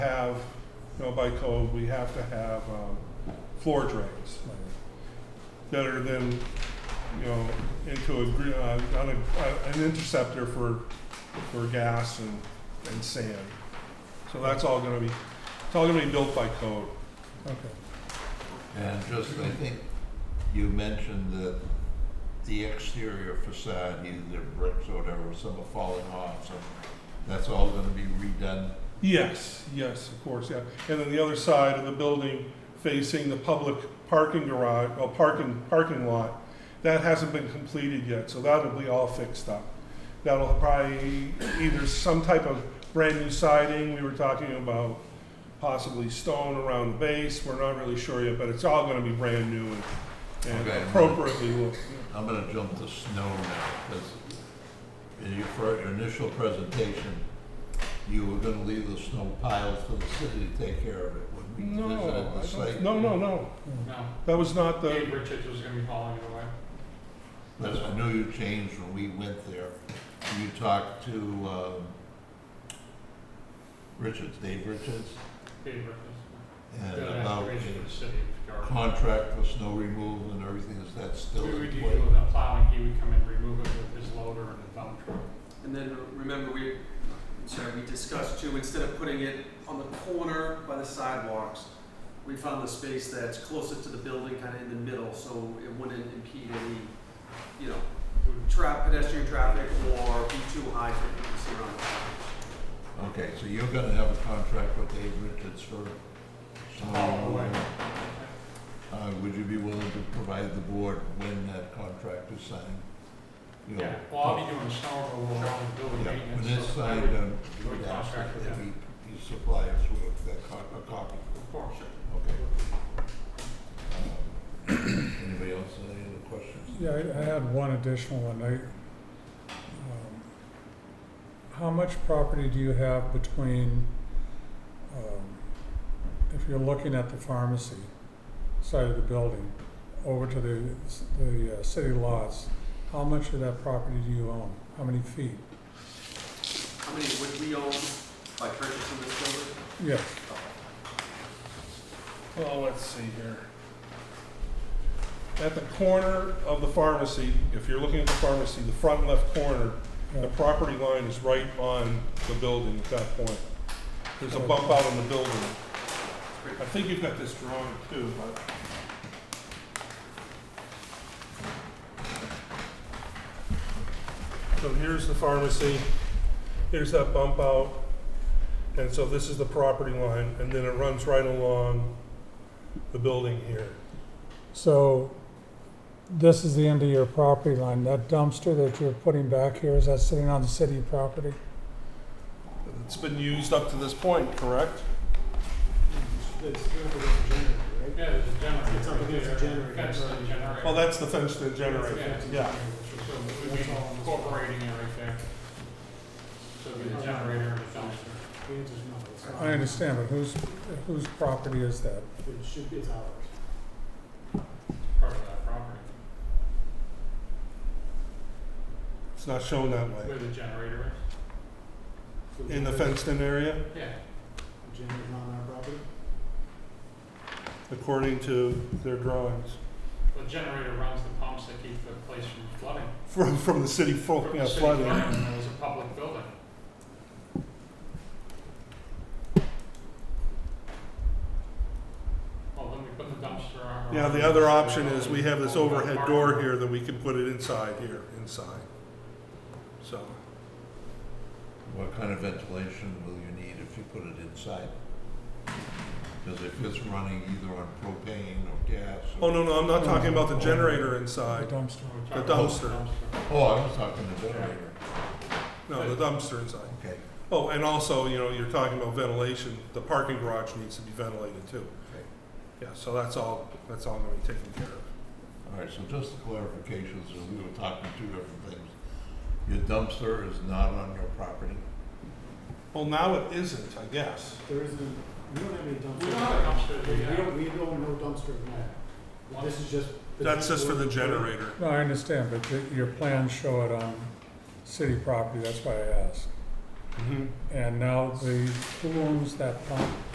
have, you know, by code, we have to have um, floor drains that are then, you know, into a, gr- uh, on a, uh, an interceptor for, for gas and, and sand. So that's all gonna be, it's all gonna be built by code. Okay, And just, I think you mentioned that the exterior facade, either bricks or whatever, some are falling off, so that's all gonna be redone. Yes, yes, of course, yeah. And then the other side of the building facing the public parking garage, well, parking, parking lot, that hasn't been completed yet, so that'll be all fixed up. That'll probably either some type of brand new siding, we were talking about possibly stone around the base, we're not really sure yet, but it's all gonna be brand new and- and Okay. appropriately look. I'm gonna jump to snow now, because in your fir- your initial presentation, you were gonna leave the snow piles for the city to take care of it when we No, visited the I site. don't- no, no, no, No, that was not the, Dave Richards was gonna be hauling it away. But I know you changed when we went there. You talked to, um, Richards, Dave Richards, Dave Richards. and Did an Uh, about excavation for a the city of Garden. contract for snow removal and everything, is that still We would in usually place? with the plowing, he would come and remove it with his loader and the dump truck. And then remember, we, I'm sorry, we discussed too, instead of putting it on the corner by the sidewalks, we found the space that's closer to the building, kind of in the middle, so it wouldn't impede any, you know, tra- pedestrian traffic or be too high for people to see around the corners. Okay, so you're gonna have a contract with Dave Richards for snow Oh, removal? right. Uh, would you be willing to provide the board when that contract is signed? You know, Yeah, well, I'll be doing snow removal around the building Yeah, maintenance. when it's so I signed, would- um, we you would would ask contract with if them. he, he supplies with that co- a copy, Of course. okay? Um, Anybody else, have any other questions? yeah, I- I had one additional one, I, um, how much property do you have between, um, if you're looking at the pharmacy side of the building, over to the, s- the uh, city lots, how much of that property do you own? How many feet? How many would we own by purchasing this building? Yes, Well, let's see here. At the corner of the pharmacy, if you're looking at the pharmacy, the front left corner, the yeah, property line is right on the building at that point. There's a bump out on the building. I think you've got this drawing too, but. So here's the pharmacy, here's that bump out, and so this is the property line, and then it runs right along the building here. so, this is the end of your property line, that dumpster that you're putting back here, is that sitting on the city property? It's been used up to this point, correct? Yeah, there's a generator. It's up against the there, generator, Fence to the right. generator. Well, that's the fenced in generator, it's a yeah. generator, So we would be That's all on this. incorporating it right there. So it'd be the generator and the dumpster. The answer's no, it's not. I understand, but whose, whose property is that? It should be, it's ours. part of that property, It's not shown that way. where the generator So In the fenced in area, is. Yeah. The gym is not on our property. according to their drawings, The generator runs the pumps that keep the place from flooding. from, from the city fo- From Oh, yeah, the city flooding. It was a public building. Well, then we put the dumpster on. Yeah, the other option is we have this overhead door here that we can put it inside here, inside. So, What kind of ventilation will you need if you put it inside? Because if it's running either on propane or gas. or- oh, no, no, I'm not talking about the generator inside, dumpster. We're the talking dumpster. about the dumpster. Oh, I was talking to generator, no, the dumpster inside. okay. Oh, and also, you know, you're talking about ventilation, the parking garage needs to be ventilated too. Okay. Yeah, so that's all, that's all gonna be taken care of. All right, so just the clarifications, as we were talking two different things. Your dumpster is not on your property? Well, now it isn't, I guess. There isn't, we don't have any dumpsters. We don't have a dumpster, we We have don't, we don't know dumpster now. one, This is just. the- That's just for the generator. No, I understand, but the- your plans show it on city property, that's why I asked. Mm-hmm. And now the, who owns that pump?